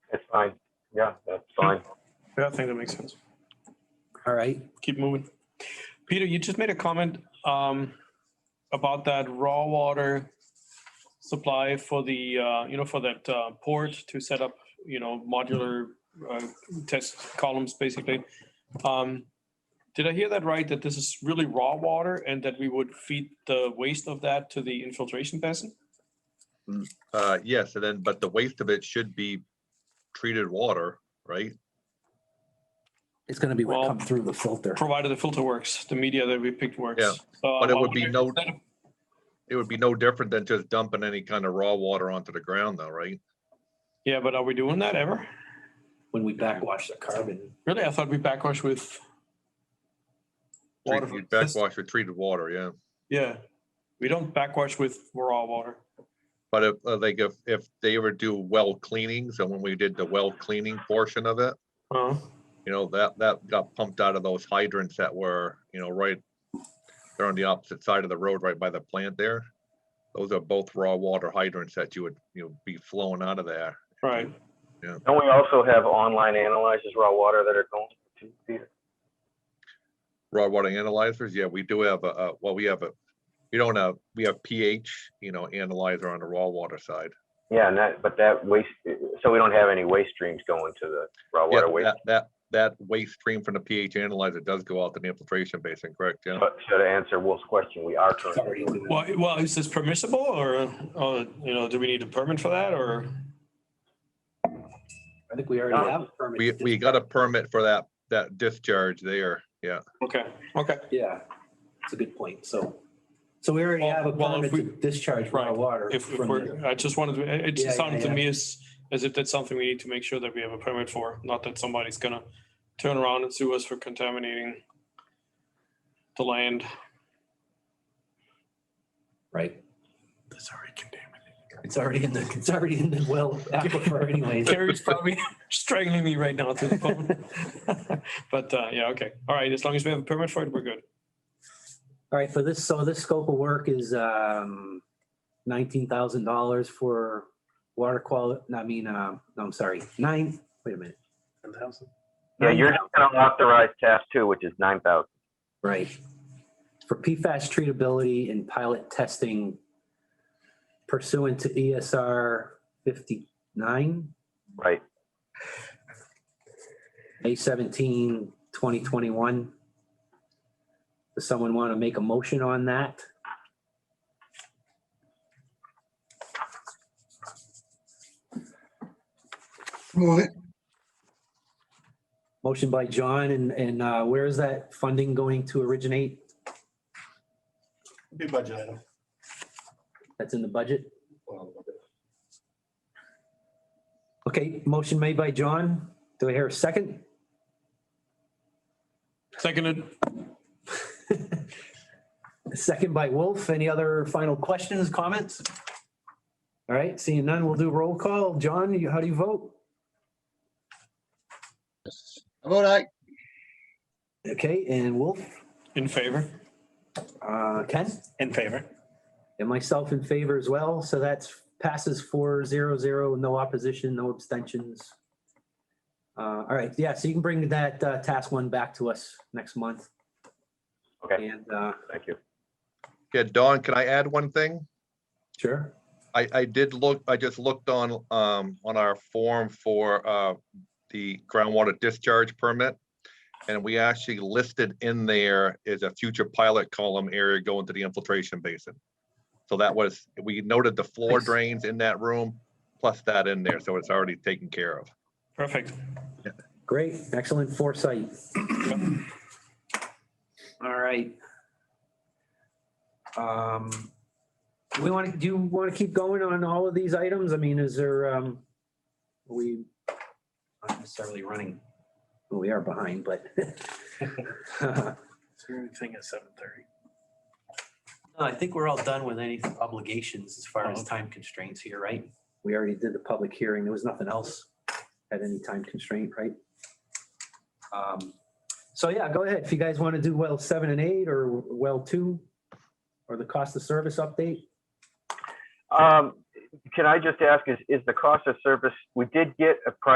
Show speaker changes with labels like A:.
A: fine. Yeah, that's fine.
B: Yeah, I think that makes sense.
C: All right.
B: Keep moving. Peter, you just made a comment um, about that raw water supply for the, uh, you know, for that uh, port to set up, you know, modular uh, test columns, basically. Um, Did I hear that right? That this is really raw water and that we would feed the waste of that to the infiltration basin?
D: Uh, yes, and then, but the waste of it should be treated water, right?
C: It's gonna be what
B: Well-
C: come through the filter.
B: Provided the filter works, the media that we picked works.
D: Yeah,
B: So uh,
D: but it
B: I
D: would be
B: wonder
D: no-
B: instead of-
D: It would be no different than just dumping any kind of raw water onto the ground though, right?
B: Yeah, but are we doing that ever?
C: When we backwash the carbon,
B: Really? I thought we backwash with.
D: Treat-
B: water.
D: you
B: from-
D: Backwash with treated water, yeah.
B: Yeah, we don't backwash with raw water.
D: But if, uh, like, if, if they ever do well cleanings, and when we did the well cleaning portion of it,
B: Uh,
D: you know, that, that got pumped out of those hydrants that were, you know, right, they're on the opposite side of the road, right by the plant there. Those are both raw water hydrants that you would, you know, be flowing out of there.
B: right.
A: Don't we also have online analyzers raw water that are going to Peter?
D: raw water analyzers, yeah, we do have a, a- well, we have a, we don't have, we have pH, you know, analyzer on the raw water side.
A: Yeah, and that, but that waste, so we don't have any waste streams going to the raw
D: Yeah,
A: water waste.
D: that, that, that waste stream from the pH analyzer does go out to the infiltration basin, correct, yeah?
A: But so to answer Wolf's question, we are
C: it's
A: currently
C: already doing
B: Well, i- well, is this permissible or, uh, you know, do we need a permit for that or?
C: I think we already have. a permit.
D: Uh, We, we got a permit for that, that discharge there, yeah.
B: Okay, okay.
C: Yeah, it's a good point. So, so we already
B: Well-
C: have a
B: well, if
C: permit to discharge raw
B: Right.
C: water.
B: If, if
C: from
B: we're,
C: the-
B: I just wanted to, it
C: Yeah, yeah,
B: just sounded to
C: yeah.
B: me as, as if that's something we need to make sure that we have a permit for, not that somebody's gonna turn around and sue us for contaminating the land.
C: Right. It's already in the, it's already in the well aquifer anyways.
B: Carrie's probably strangling me right now through the phone. But, uh, yeah, okay. All right, as long as we have a permit for it, we're good.
C: All right, for this, so this scope of work is um nineteen thousand dollars for water quality, I mean, um, no, I'm sorry, nine, wait a minute. Ten thousand?
A: Yeah, you're just gonna authorize task two, which is nine thousand.
C: Right. For PFAS treatability and pilot testing pursuant to ESR fifty-nine,
A: Right,
C: May 17, 2021. Does someone want to make a motion on that?
E: Move it.
C: Motion by John, and, and uh, where is that funding going to originate?
F: Big budget item.
C: That's in the budget? Okay, motion made by John. Do I hear a second?
B: Seconded.
C: Second by Wolf. Any other final questions, comments? All right, seeing none, we'll do roll call. John, you- how do you vote?
E: I vote aye.
C: Okay, and Wolf,
B: In favor?
C: uh, Ken?
F: In favor.
C: And myself in favor as well, so that's passes four zero zero, no opposition, no abstentions. Uh, all right, yeah, so you can bring that uh, task one back to us next month.
A: okay,
C: And, uh,
A: thank you.
D: Yeah, Don, can I add one thing?
C: sure,
D: I, I did look, I just looked on, um, on our form for, uh, the groundwater discharge permit. And we actually listed in there is a future pilot column area going to the infiltration basin. So that was, we noted the floor
C: Nice.
D: drains in that room, plus that in there, so it's already taken care of.
B: Perfect.
C: great, excellent foresight. All right. Um, do we want to, do you want to keep going on all of these items? I mean, is there, um, are we not necessarily running, Well, we are behind, but.
F: Thing at seven thirty.
C: No, I think we're all done with any obligations as far as time constraints here, right? Oh. We already did the public hearing. There was nothing else at any time constraint, right? Um, So yeah, go ahead. If you guys want to do well seven and eight or well two or the cost of service update.
A: Um, can I just ask, is, is the cost of service, we did get a price